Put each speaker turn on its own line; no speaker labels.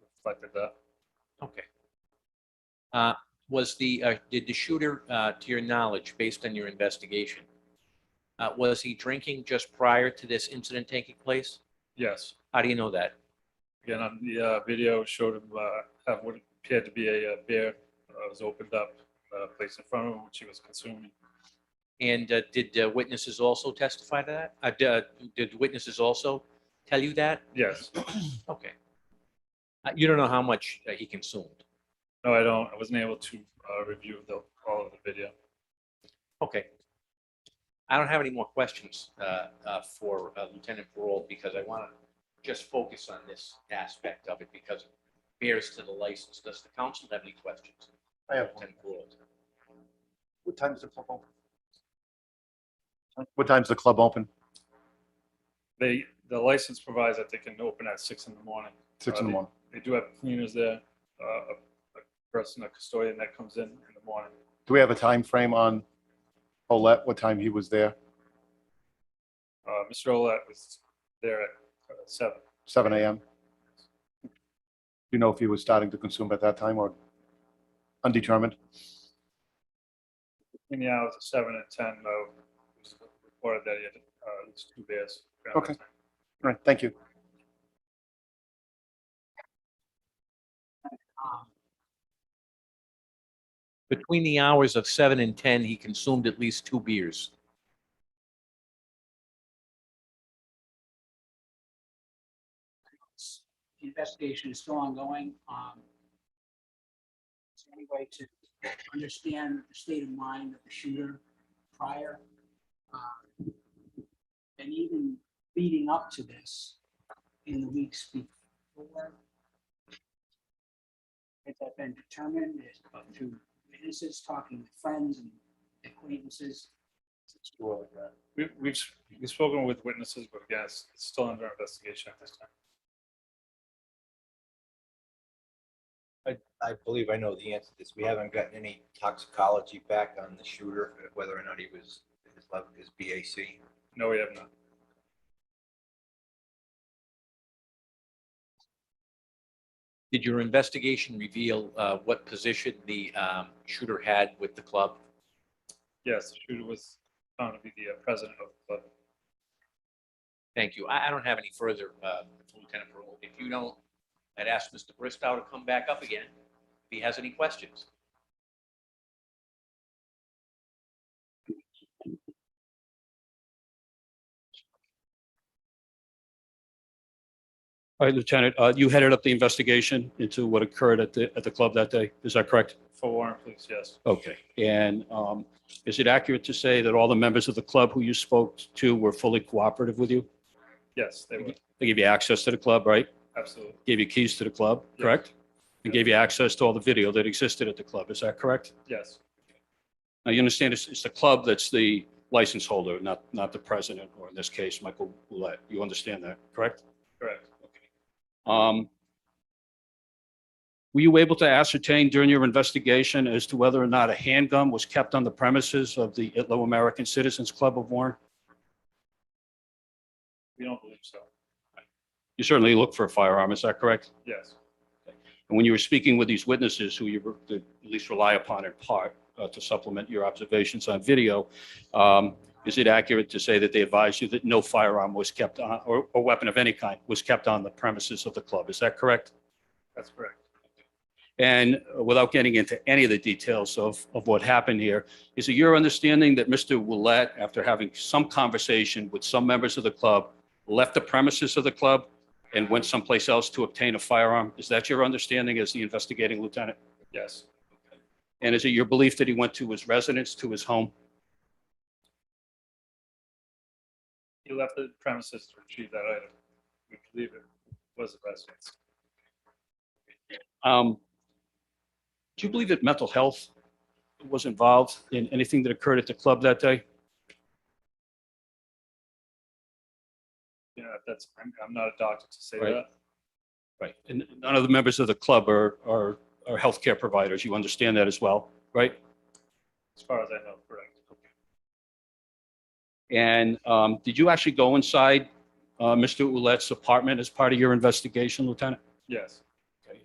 reflected that.
Okay. Uh, Was the, uh, did the shooter, uh, to your knowledge, based on your investigation, uh, was he drinking just prior to this incident taking place?
Yes.
How do you know that?
Again, on the uh, video it showed him uh, have what appeared to be a uh, beer that was opened up, uh, placed in front of him, which he was consuming.
And uh, did uh, witnesses also testify to that? Uh, d- uh, Did witnesses also tell you that?
Yes.
Okay. Uh, You don't know how much uh, he consumed?
No, I don't. I wasn't able to uh, review the all of the video.
Okay. I don't have any more questions uh, uh, for uh, Lieutenant Parole because I want to just focus on this aspect of it because it bears to the license. Does the council have any questions?
I have one.
Lieutenant Parole.
What time's the club open? What time's the club open?
They, the license provides that they can open at six in the morning.
Six in the morning.
They do have cleaners there, uh, a a person, a custodian that comes in in the morning.
Do we have a time frame on Olet, what time he was there?
Uh, Mr. Olet was there at uh, seven.
Seven AM? Do you know if he was starting to consume at that time or undetermined?
In the hours of seven and ten, though, it was reported that he had uh, at least two beers. around that
Okay.
time.
All Right, thank you.
Um,
Between the hours of seven and 10, he consumed at least two beers.
The investigation is still ongoing. Um, Is there any way to understand the state of mind of the shooter prior? uh, And even leading up to this in the weeks before? Has that been determined Is it up to witnesses, talking with friends and acquaintances?
We- We've, s- we've spoken with witnesses, but yes, it's still under investigation at this time.
I believe I know the answer to this. We haven't gotten any toxicology back on the shooter, whether or not he was, his level, his BAC.
No, we have not.
Did your investigation reveal uh, what position the um, shooter had with the club?
Yes, the shooter was found to be the uh, president of the club.
Thank you. I I don't have any further, uh, Lieutenant Parole. If you don't, I'd ask Mr. Bristow to come back up again if he has any questions.
All right, Lieutenant, uh, you headed up the investigation into what occurred at the, at the club that day. Is that correct?
For Warren Police, yes.
Okay. And um, is it accurate to say that all the members of the club who you spoke to were fully cooperative with you?
Yes, they would,
They gave you access to the club, right?
absolutely.
Gave you keys to the club,
Yes.
correct? And gave you access to all the video that existed at the club. Is that correct?
Yes,
Now, you understand it's, it's the club that's the license holder, not, not the president, or in this case, Michael Boulette. You understand that, correct?
correct.
Um, Were you able to ascertain during your investigation as to whether or not a handgun was kept on the premises of the Itlo American Citizens Club of Warren?
We don't believe so.
You certainly looked for a firearm, is that correct?
Yes,
And when you were speaking with these witnesses, who you were- that at least rely upon in part uh, to supplement your observations on video, um, is it accurate to say that they advised you that no firearm was kept on, or or weapon of any kind was kept on the premises of the club? Is that correct?
that's correct.
And without getting into any of the details of, of what happened here, is it your understanding that Mr. Willett, after having some conversation with some members of the club, left the premises of the club and went someplace else to obtain a firearm? Is that your understanding as the investigating lieutenant?
Yes,
And is it your belief that he went to his residence, to his home?
he left the premises to retrieve that item. We believe it was the president's.
Um, Do you believe that mental health was involved in anything that occurred at the club that day?
You know, that's, I'm, I'm not a doctor to say
Right.
that.
Right, and none of the members of the club are, are, are healthcare providers, you understand that as well, right?
As far as I know, correct.
And um, did you actually go inside uh, Mr. Ouellette's apartment as part of your investigation, Lieutenant?
Yes,